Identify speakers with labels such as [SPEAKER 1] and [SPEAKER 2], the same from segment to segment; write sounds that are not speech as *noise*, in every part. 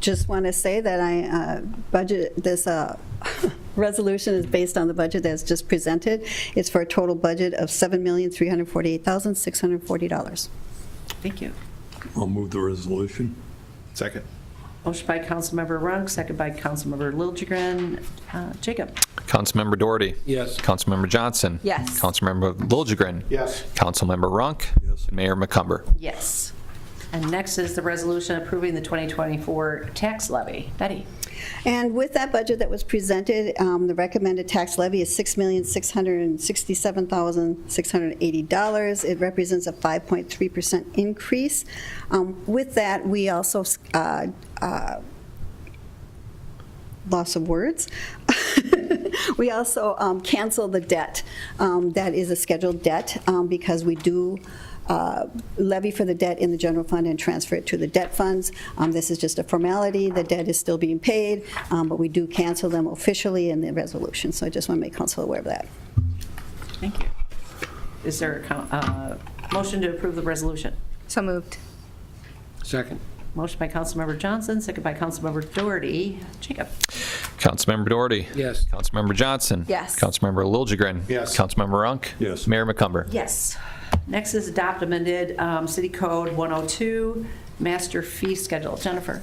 [SPEAKER 1] just want to say that I, uh, budget, this uh, *laughs* resolution is based on the budget that's just presented. It's for a total budget of $7,348,640.
[SPEAKER 2] Thank you.
[SPEAKER 3] I'll move the resolution.
[SPEAKER 4] Second.
[SPEAKER 2] Motion by Councilmember Runk, second by Councilmember Liljegren. Uh, Jacob?
[SPEAKER 5] Councilmember Doherty.
[SPEAKER 4] Yes.
[SPEAKER 5] Councilmember Johnson.
[SPEAKER 2] Yes.
[SPEAKER 5] Councilmember Liljegren.
[SPEAKER 4] Yes.
[SPEAKER 5] Councilmember Runk.
[SPEAKER 3] Yes.
[SPEAKER 5] And Mayor McCumber.
[SPEAKER 2] Yes. And next is the resolution approving the 2024 tax levy. Betty?
[SPEAKER 1] And with that budget that was presented, um, the recommended tax levy is $6,667,680. It represents a 5.3% increase. Um, With that, we also uh, uh, loss of words. *laughs* we also um, cancel the debt um, that is a scheduled debt um, because we do uh, levy for the debt in the general fund and transfer it to the debt funds. Um, this is just a formality. The debt is still being paid, um, but we do cancel them officially in the resolution. So I just want to make council aware of that.
[SPEAKER 2] Thank you. Is there a coun- uh, motion to approve the resolution?
[SPEAKER 6] So moved.
[SPEAKER 4] Second.
[SPEAKER 2] Motion by Councilmember Johnson, second by Councilmember Doherty. Jacob?
[SPEAKER 5] Councilmember Doherty.
[SPEAKER 4] Yes.
[SPEAKER 5] Councilmember Johnson.
[SPEAKER 6] Yes.
[SPEAKER 5] Councilmember Liljegren.
[SPEAKER 4] Yes.
[SPEAKER 5] Councilmember Runk.
[SPEAKER 3] Yes.
[SPEAKER 5] Mayor McCumber.
[SPEAKER 2] Yes. Next is adopt amended um, City Code 102, master fee schedule. Jennifer?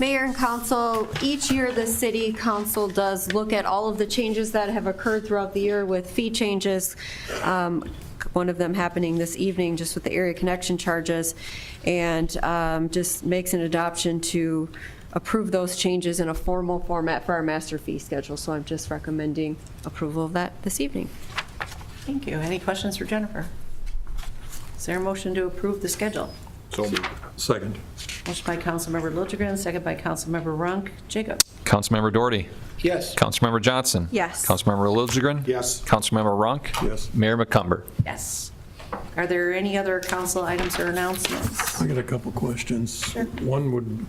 [SPEAKER 6] Mayor and council, each year the city council does look at all of the changes that have occurred throughout the year with fee changes, um, one of them happening this evening, just with the area connection charges, and um, just makes an adoption to approve those changes in a formal format for our master fee schedule. So I'm just recommending approval of that this evening.
[SPEAKER 2] Thank you. Any questions for Jennifer? Is there a motion to approve the schedule?
[SPEAKER 4] So moved.
[SPEAKER 3] Second.
[SPEAKER 2] Motion by Councilmember Liljegren, second by Councilmember Runk. Jacob?
[SPEAKER 5] Councilmember Doherty.
[SPEAKER 4] Yes.
[SPEAKER 5] Councilmember Johnson.
[SPEAKER 6] Yes.
[SPEAKER 5] Councilmember Liljegren.
[SPEAKER 4] Yes.
[SPEAKER 5] Councilmember Runk.
[SPEAKER 3] Yes.
[SPEAKER 5] Mayor McCumber.
[SPEAKER 2] Yes. Are there any other council items or announcements?
[SPEAKER 3] I got a couple questions. One would,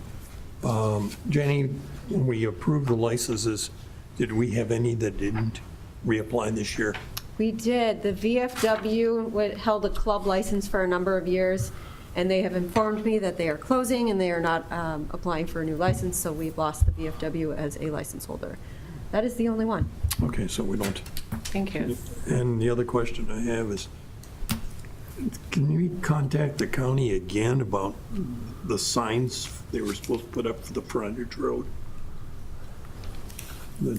[SPEAKER 3] um, Jenny, when we approved the licenses, did we have any that didn't reapply this year?
[SPEAKER 6] We did. The VFW wa- held a club license for a number of years, and they have informed me that they are closing and they are not um, applying for a new license, so we've lost the VFW as a license holder. That is the only one.
[SPEAKER 3] Okay, so we don't.
[SPEAKER 2] Thank you.
[SPEAKER 3] And the other question I have is, can we contact the county again about the signs they were supposed to put up for the frontage road? That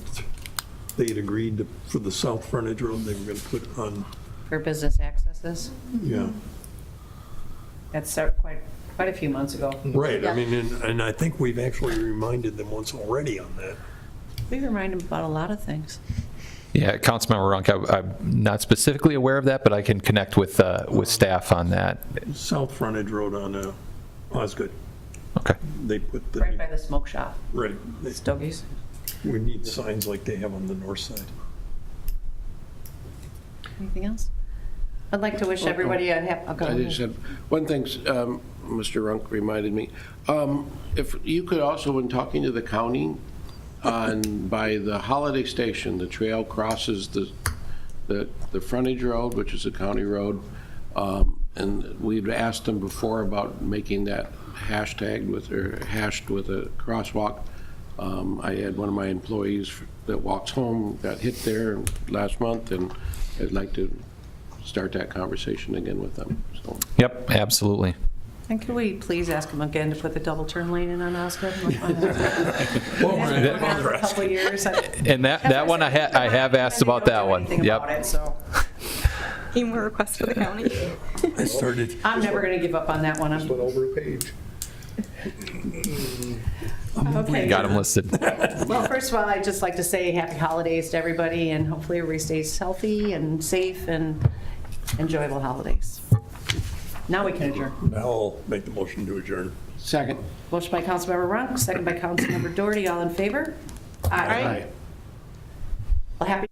[SPEAKER 3] they had agreed to- for the south frontage road they were going to put on,
[SPEAKER 2] For business accesses,
[SPEAKER 3] yeah.
[SPEAKER 2] that's start- quite, quite a few months ago.
[SPEAKER 3] Right, I mean, and, and I think we've actually reminded them once already on that.
[SPEAKER 2] We remind them about a lot of things.
[SPEAKER 5] Yeah, Councilmember Runk, I- I'm not specifically aware of that, but I can connect with, uh, with staff on that.
[SPEAKER 3] South frontage road on, uh, Osgood,
[SPEAKER 5] Okay.
[SPEAKER 3] they put
[SPEAKER 2] Right by
[SPEAKER 3] the,
[SPEAKER 2] the smoke shop,
[SPEAKER 3] right, they-
[SPEAKER 2] Stogies.
[SPEAKER 3] we need signs like they have on the north side.
[SPEAKER 2] Anything else? I'd like to wish everybody a happy, oh, go
[SPEAKER 7] I just
[SPEAKER 2] ahead.
[SPEAKER 7] have, one thing, um, Mr. Runk reminded me, Um, if you could also, when talking to the county, on, by the Holiday Station, the trail crosses the, the, the frontage road, which is a county road, um, and we've asked them before about making that hashtagged with, or hashed with a crosswalk. Um, I had one of my employees that walks home, got hit there last month, and I'd like to start that conversation again with them, so.
[SPEAKER 5] Yep, absolutely.
[SPEAKER 2] And can we please ask them again to put the double turn lane in on
[SPEAKER 7] *laughs*
[SPEAKER 2] Osgood? A couple years. I-
[SPEAKER 5] And that, that one, I ha, I have asked about that one.
[SPEAKER 2] Anything about
[SPEAKER 5] Yep.
[SPEAKER 2] it, so
[SPEAKER 6] Any more requests for the county?
[SPEAKER 3] I started,
[SPEAKER 2] I'm never going to give up on that one. I'm-
[SPEAKER 4] Went over a page.
[SPEAKER 2] Okay.
[SPEAKER 5] Got them listed.
[SPEAKER 2] Well, first of all, I'd just like to say happy holidays to everybody, and hopefully everybody stays healthy and safe and enjoyable holidays. Now we can adjourn.
[SPEAKER 3] now I'll make the motion to adjourn.
[SPEAKER 7] Second.
[SPEAKER 2] Motion by Councilmember Runk, second by Councilmember Doherty, all in favor? Aye. Well, happy